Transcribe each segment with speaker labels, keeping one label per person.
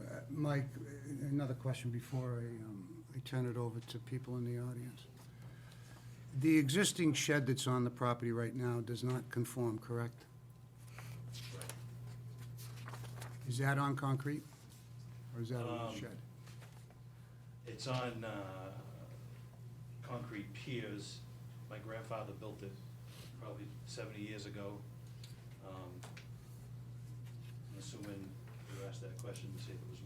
Speaker 1: Uh, Mike, another question before I, um, I turn it over to people in the audience. The existing shed that's on the property right now does not conform, correct? Is that on concrete? Or is that on
Speaker 2: Um,
Speaker 1: the shed?
Speaker 2: It's on uh, concrete piers. My grandfather built it probably 70 years ago. Um, I'm assuming you asked that question to see if it was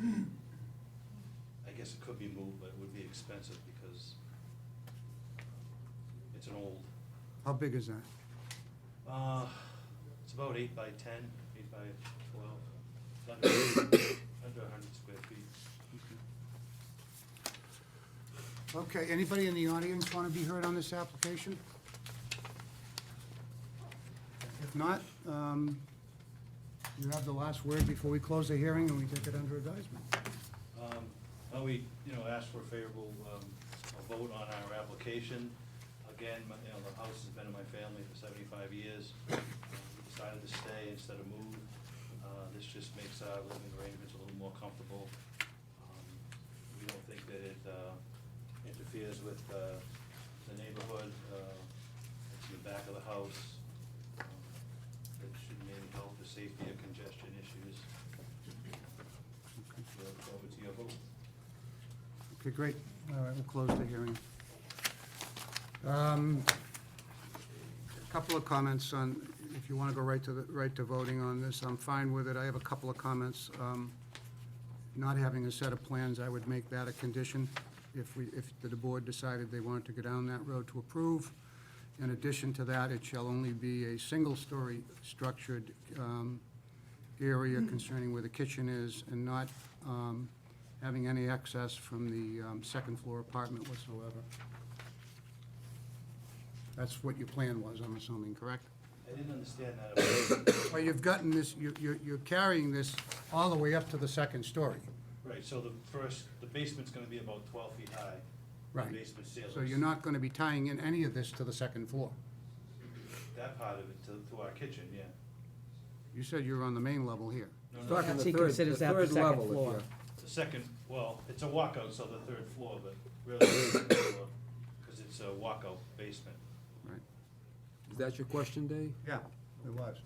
Speaker 2: movable. Um, I guess it could be moved, but it would be expensive because uh, it's an old,
Speaker 1: How big is that?
Speaker 2: uh, it's about eight by 10, eight by 12, It's under under 100 square feet.
Speaker 1: Okay, anybody in the audience want to be heard on this application? If not, um, you have the last word before we close the hearing and we take it under advisement.
Speaker 2: Um, Well, we, you know, asked for a favorable um, a vote on our application. Again, my- you know, the house has been in my family for seventy-five years. Uh, We Decided to stay instead of move. Uh, This just makes our living arrangements a little more comfortable. Um, We don't think that it uh, interferes with uh, the neighborhood. uh, It's in the back of the house. Um, It shouldn't be any health or safety or congestion issues. We look forward to your vote.
Speaker 1: Okay, great. All right, we'll close the hearing. Um, a Couple of comments on, if you want to go right to, the right to voting on this, I'm fine with it. I have a couple of comments. Um, Not having a set of plans, I would make that a condition if we, if the board decided they wanted to go down that road to approve. In addition to that, it shall only be a single-story structured um, area concerning where the kitchen is and not um, having any access from the um, second floor apartment whatsoever. That's what your plan was, I'm assuming, correct?
Speaker 2: I didn't understand that.
Speaker 1: Well, you've gotten this, you- you- you're carrying this all the way up to the second story.
Speaker 2: Right, so the first, the basement's gonna be about twelve feet high. the
Speaker 1: Right.
Speaker 2: Basement ceilings.
Speaker 1: So you're not going to be tying in any of this to the second floor.
Speaker 2: That part of it to, to our kitchen, yeah.
Speaker 1: You said you were on the main level here.
Speaker 2: No, no,
Speaker 3: Talking the
Speaker 4: He
Speaker 3: third-
Speaker 4: considers that the
Speaker 3: third
Speaker 4: second
Speaker 3: level, if
Speaker 4: floor.
Speaker 3: you're-
Speaker 2: The second, well, it's a walkout, so the third floor, but really, it's the second floor, cause it's a walkout basement.
Speaker 1: Right.
Speaker 3: Is that your question, Dave?
Speaker 1: Yeah, it was.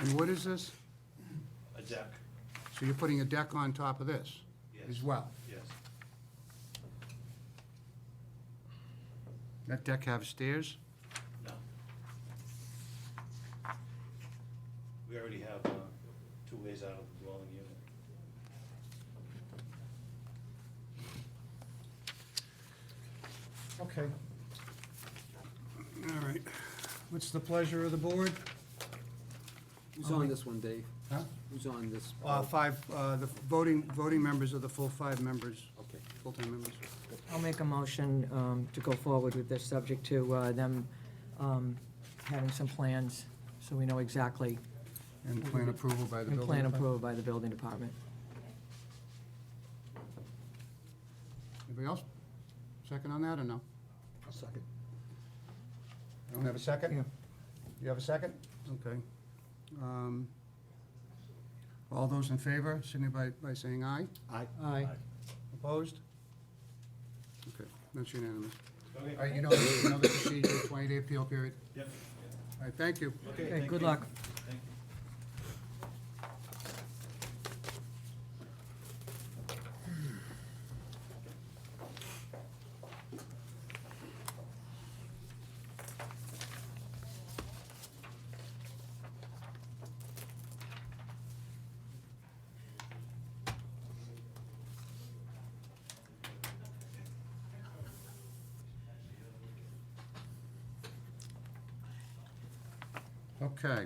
Speaker 1: And what is this?
Speaker 2: A deck,
Speaker 1: So you're putting a deck on top of this as
Speaker 2: Yes.
Speaker 1: well?
Speaker 2: yes.
Speaker 1: That deck have stairs?
Speaker 2: No. We already have, uh, two ways out of the dwelling unit.
Speaker 1: Okay. All right. What's the pleasure of the board?
Speaker 3: Who's on this one, Dave?
Speaker 1: Huh?
Speaker 3: Who's on this?
Speaker 1: Uh, five, uh, the voting, voting members are the full five members,
Speaker 3: Okay.
Speaker 1: full-time members.
Speaker 4: I'll make a motion um, to go forward with this, subject to uh, them um, having some plans, so we know exactly,
Speaker 1: And plan approval by the
Speaker 4: and
Speaker 1: building.
Speaker 4: plan
Speaker 1: department.
Speaker 4: approved by the building department.
Speaker 1: Anybody else? Second on that or no?
Speaker 3: I'll second.
Speaker 1: I Don't have a second?
Speaker 4: Yeah.
Speaker 1: You have a second? Okay. Um, All those in favor, signify by saying aye.
Speaker 3: Aye.
Speaker 4: Aye.
Speaker 1: Opposed? Okay, that's unanimous. All
Speaker 2: Okay,
Speaker 1: right, you know, you know the procedure, twenty-day appeal period.
Speaker 2: yep,
Speaker 1: All right, thank you.
Speaker 2: yeah. okay,
Speaker 4: Okay,
Speaker 2: thank
Speaker 4: good
Speaker 2: you.
Speaker 4: luck.
Speaker 2: Thank you.
Speaker 1: Okay.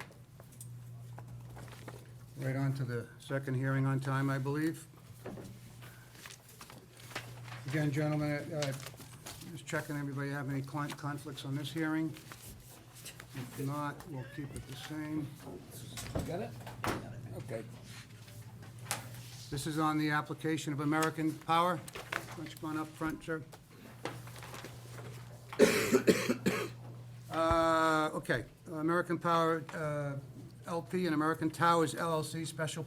Speaker 1: Right on to the second hearing on time, I believe. Again, gentlemen, uh, just checking, everybody have any client conflicts on this hearing? If not, we'll keep it the same.
Speaker 3: Got it? Okay.
Speaker 1: This is on the application of American Power. Why don't you come on up front, sir? Uh, Okay, American Power uh, LP and American Towers LLC, special